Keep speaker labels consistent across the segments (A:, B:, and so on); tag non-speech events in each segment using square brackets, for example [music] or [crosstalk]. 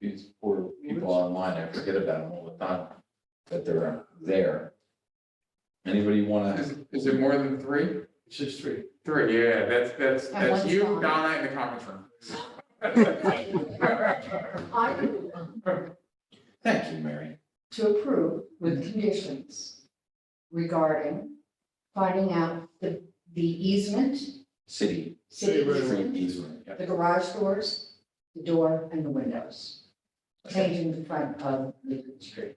A: these poor people online, I forget about them all the time, that they're there. Anybody wanna,
B: Is, is it more than three?
C: It's just three.
B: Three, yeah, that's, that's,
D: At
B: that's
D: one
B: you,
D: time.
B: Donna, in the conference room.
D: I move
A: thank you, Mary.
D: [laughs] to approve with conditions regarding finding out the, the easement,
A: City,
D: city
C: City right of way.
A: street
D: easement,
A: easement, yeah.
D: the garage doors, the door and the windows,
A: Okay.
D: changing the front of the street.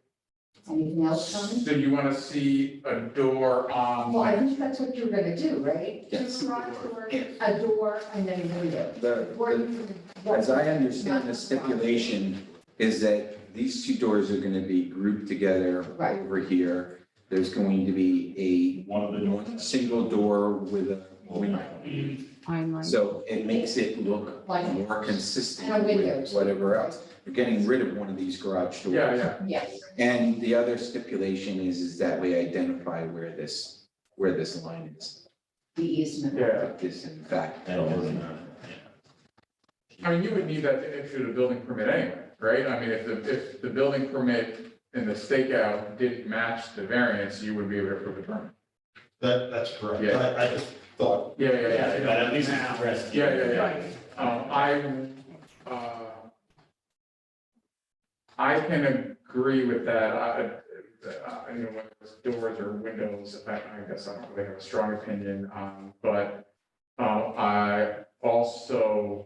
D: Anything else, Tony?
B: So you wanna see a door on,
D: Well, I
B: like,
D: think that's what you're gonna do, right?
A: Yes.
D: The garage door, A door and then a window.
A: The-
D: Or
A: the-
D: you can-
A: As I understand the stipulation is that these two doors are gonna be grouped together
D: Right.
A: over here. There's going to be
E: One of
A: a
E: the doors.
A: single door with a window.
F: timeline.
A: So it makes it look
D: Like-
A: more consistent
D: And a window.
A: with whatever else. You're getting rid of one of these garage doors.
B: yeah, yeah.
D: Yes,
A: And the other stipulation is, is that we identify where this, where this line is.
D: the easement.
B: Yeah.
A: That This in fact.
E: That wasn't, uh,
B: I mean, you would need that to issue the building permit anyway, right? I mean, if the, if the building permit and the stakeout didn't match the variance, you would be able to approve the permit.
C: That, that's correct.
B: Yeah.
C: I, I just thought,
B: Yeah, yeah, yeah,
E: Yeah,
B: yeah.
E: but at least it's addressed.
B: Yeah, yeah, yeah. Um, I, uh, I can agree with that. I, I, you know, whether it's doors or windows, I, I guess I don't really have a strong opinion on, but, um, I also,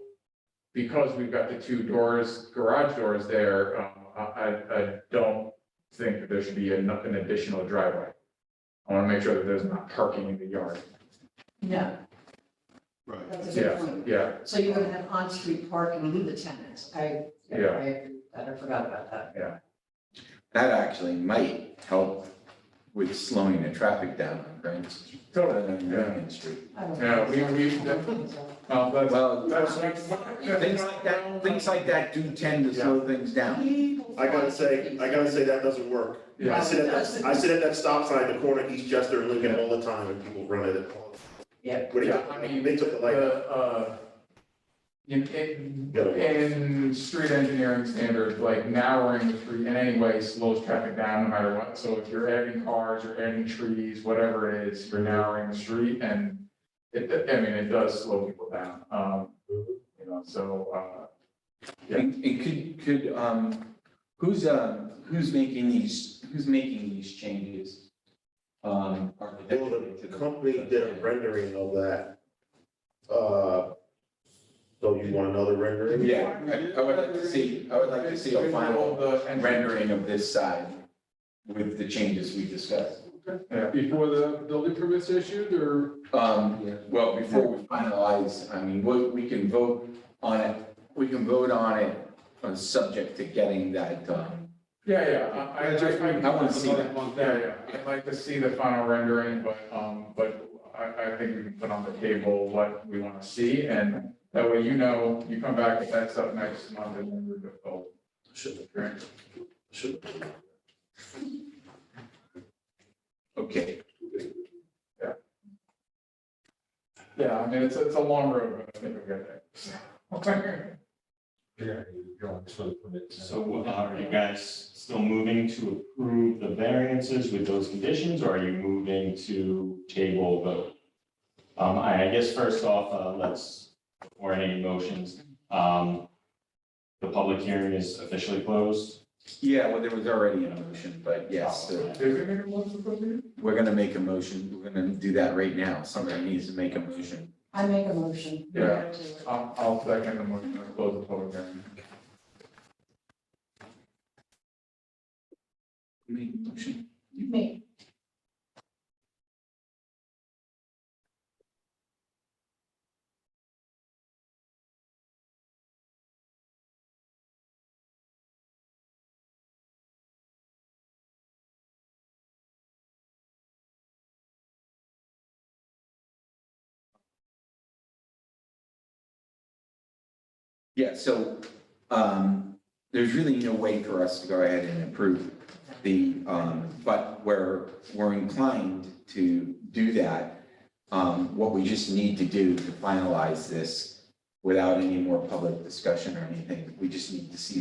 B: because we've got the two doors, garage doors there, um, I, I, I don't think that there should be an, an additional driveway. I want to make sure that there's not parking in the yard.
D: No,
C: right.
D: that's a good
B: Yeah,
D: point.
B: yeah,
D: So you're gonna have on-street parking with the tenants, I, I,
B: Yeah.
D: agree with that. I forgot about that.
A: That actually might help with slowing the traffic down on Grand Street.
B: totally,
A: on
B: yeah.
A: Grand Street.
D: I don't
B: Yeah,
D: think
B: we- we-
D: so. I don't think so.
B: Um, that's,
A: Well,
B: that's.
A: things like that, things like that do tend to slow things down.
G: I gotta say, I gotta say, that doesn't work. I
B: Yeah,
G: sit at that, I sit at that stop sign at the corner of East Chester and Lincoln all the time, and people run at it.
D: Yeah.
G: What do you,
B: Yeah, I mean,
G: they took the
B: the,
G: light.
B: uh, in, in, in street engineering standards, like narrowing the street in any way slows traffic down no matter what. So if you're adding cars, you're adding trees, whatever it is, you're narrowing the street and it, I mean, it does slow people down. Um,
H: Mm-hmm.
B: you know, so, uh,
A: And and could, could, um, who's, um, who's making these, who's making these changes? Um,
G: Well,
A: architecturally to
G: the company did a rendering of that. Uh, so you want another rendering?
A: Yeah, I- I would like to see, I would like to see a final
B: the
A: rendering of this side with the changes we discussed.
B: Yeah.
H: Before the building permit's issued, or
A: Um, well, before we finalize, I mean, we, we can vote on it, we can vote on it, uh, subject to getting that, um,
B: Yeah, yeah, I, I, I.
A: I wanna see that.
B: Yeah, yeah, I'd like to see the final rendering, but, um, but I, I think we can put on the table what we want to see, and that way you know, you come back, if that's up next month, and then we're good. Oh,
C: Should,
B: great.
C: should.
A: okay.
B: Yeah, I mean, it's, it's a long road, but I think we'll get there.
C: Yeah, you're on for the permit.
E: So uh, are you guys still moving to approve the variances with those conditions, or are you moving to table vote? Um, I, I guess first off, uh, let's, before any motions, um, the public hearing is officially closed.
A: Yeah, well, there was already a motion, but yes, uh,
B: Did we make a motion for you?
A: we're gonna make a motion, we're gonna do that right now, somebody needs to make a motion.
D: I make a motion.
B: Yeah. I'll, Um, I'll second the motion to close the public hearing.
A: Make a motion.
D: Me.
A: Yeah, so, um, there's really no way for us to go ahead and approve the, um, but we're, we're inclined to do that. Um, what we just need to do to finalize this without any more public discussion or anything, we just need to see